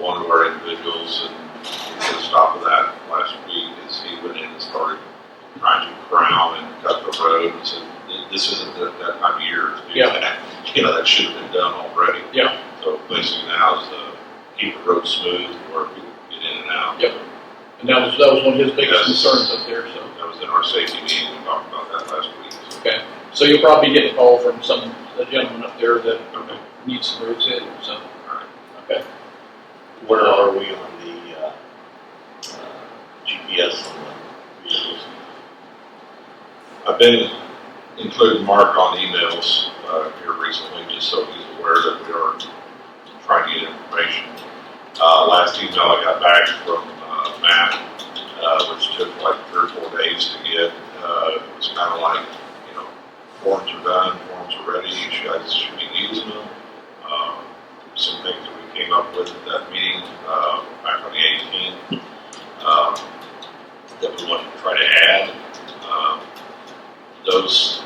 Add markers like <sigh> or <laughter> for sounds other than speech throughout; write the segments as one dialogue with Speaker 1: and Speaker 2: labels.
Speaker 1: one of our individuals, and we did a stop of that last week, is he went in and started trying to crown and cut the road, and said, this isn't that, that time of year to do
Speaker 2: Yeah.
Speaker 1: that. <laughs> You know, that should have been done already.
Speaker 2: Yeah.
Speaker 1: So basically now is, uh, keep the road smooth, where people can get in and out.
Speaker 2: Yep. And that was, that was one of his biggest
Speaker 1: Yes.
Speaker 2: concerns up there, so.
Speaker 1: That was in our safety meeting, we talked about that last week. so-
Speaker 2: So you'll probably get a call from some, a gentleman up there that
Speaker 1: Okay.
Speaker 2: needs some roads in, so.
Speaker 1: Alright.
Speaker 2: Okay,
Speaker 3: Where are we on the, uh, uh, GPS on the vehicles?
Speaker 1: I've been including Mark on emails uh, here recently, just so he's aware that we are trying to get information. Uh, Last email I got back from uh, Matt, uh, which took like three or four days to get, uh, it was kind of like, you know, forms are done, forms are ready, you guys should be using them. Um, Some things that we came up with at that meeting uh, back on the 18th um, that we wanted to try to add. Um, those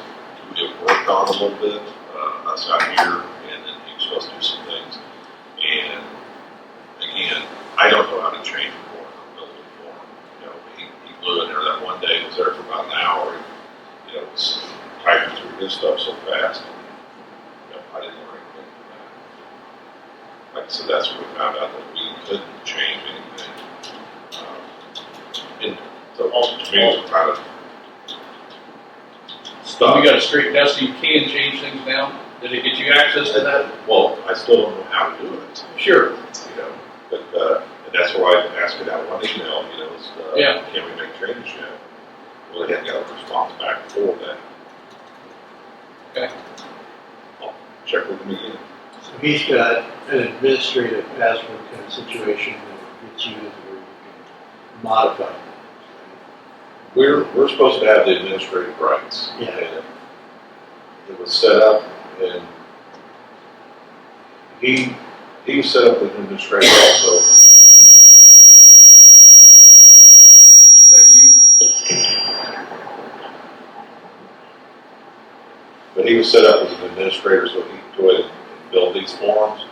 Speaker 1: we have worked on a little bit, uh, us out here, and then he was supposed to do some things. And again, I don't know how to change a form or build a form. You know, he, he blew in there that one day, was there for about an hour, and, you know, was typing through his stuff so fast. You know, I didn't learn anything from that. Like I said, that's when we found out that we couldn't change anything. Um, And so, to me, it was kind of
Speaker 2: so
Speaker 1: stuck.
Speaker 2: we got a straight, now, so you can change things now? Did it get you access to that?
Speaker 1: Well, I still don't know how to do it,
Speaker 2: Sure,
Speaker 1: you know, but, uh, and that's why I asked for that one email, you know, is, uh,
Speaker 2: Yeah.
Speaker 1: can we make changes yet? Well, they hadn't got a response back for that.
Speaker 2: Okay.
Speaker 1: I'll Check with them again.
Speaker 4: So he's got an administrative password kind of situation that gets you to where you can modify.
Speaker 1: We're, we're supposed to have the administrative rights.
Speaker 4: Yeah.
Speaker 1: and It was set up and he, he was set up with administrative, so
Speaker 2: is that you?
Speaker 1: But he was set up as an administrator, so he could go ahead and build these forms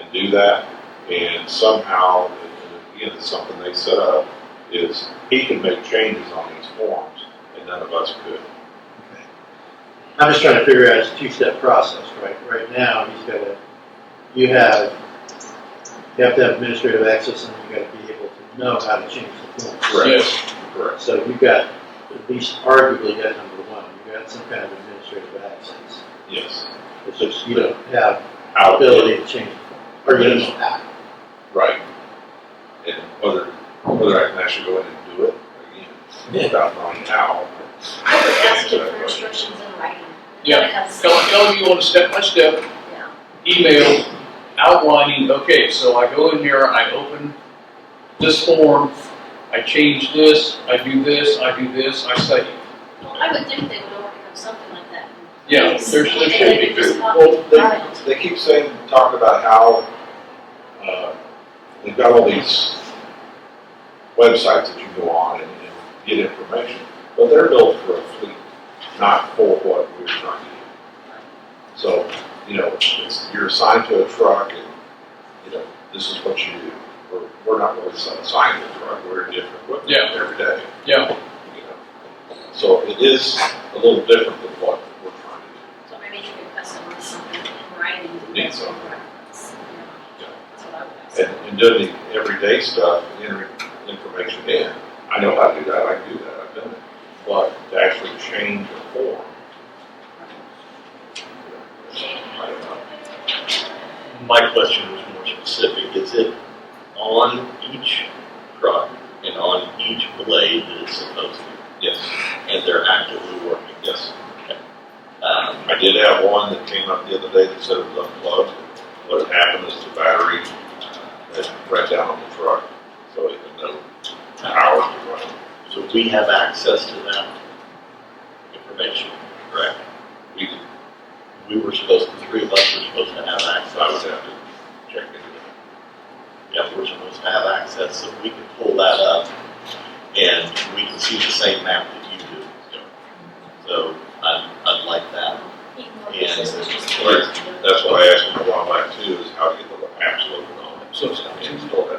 Speaker 1: and do that. And somehow, and again, it's something they set up, is he can make changes on these forms, and none of us could.
Speaker 4: I'm just trying to figure out it's a two-step process, right? Right now, he's got to, you have, you have to have administrative access and you got to be able to know how to change the form.
Speaker 1: Correct.
Speaker 2: Yes,
Speaker 1: Correct.
Speaker 4: So you've got, at least arguably, that number one, you've got some kind of administrative access.
Speaker 1: Yes.
Speaker 4: It's just you don't have the
Speaker 1: How
Speaker 4: ability to change the form. Or you don't know how.
Speaker 1: Right. And whether, whether I can actually go in and do it again, without knowing how.
Speaker 5: I would ask you for instructions in writing.
Speaker 2: yeah.
Speaker 5: Because,
Speaker 2: Tell, tell him you want a step by step
Speaker 5: yeah,
Speaker 2: email outlining, okay, so I go in here, I open this form, I change this, I do this, I do this, I save.
Speaker 5: well, I would think they would overcome something like that.
Speaker 2: Yeah,
Speaker 5: Yes,
Speaker 2: there's, there should
Speaker 5: they
Speaker 2: be.
Speaker 5: would just walk
Speaker 1: Well, they-
Speaker 5: around.
Speaker 1: They keep saying, talking about how, uh, they've got all these websites that you go on and, and get information, but they're built for a fleet, not for what we're trying to do. So, you know, it's, you're assigned to a truck and, you know, this is what you do. We're, we're not really assigned to a truck, we're in different equipment
Speaker 2: Yeah.
Speaker 1: every day.
Speaker 2: Yeah.
Speaker 1: You know, so it is a little different than what we're trying to do.
Speaker 5: So maybe you could customize something in writing. to
Speaker 1: Need
Speaker 5: that
Speaker 1: something.
Speaker 5: for reference, you know. That's what I would ask.
Speaker 1: and, and doing the everyday stuff, entering information in. I know how to do that, I can do that, I've done it. But to actually change a form. I don't know.
Speaker 3: My question was more specific, is it on each truck and on each blade that it's supposed to,
Speaker 1: Yes,
Speaker 3: and they're actively working?
Speaker 1: yes.
Speaker 3: Um,
Speaker 1: I did have one that came up the other day that said it was unplugged. What had happened is the battery had right down on the truck, so it had no power to run.
Speaker 3: so we have access to that information, correct?
Speaker 1: We could,
Speaker 3: We were supposed, the three of us were supposed to have
Speaker 1: I would
Speaker 3: access.
Speaker 1: have to check into that.
Speaker 3: Yeah, we're supposed to have access, so we can pull that up, and we can see the same map that you do. So, I'd, I'd like that.
Speaker 5: Even though this
Speaker 3: Yeah.
Speaker 5: is just-
Speaker 1: Right. That's what I asked him a while back too, is how to get the apps loaded on it.
Speaker 2: So it's not.
Speaker 1: Install that.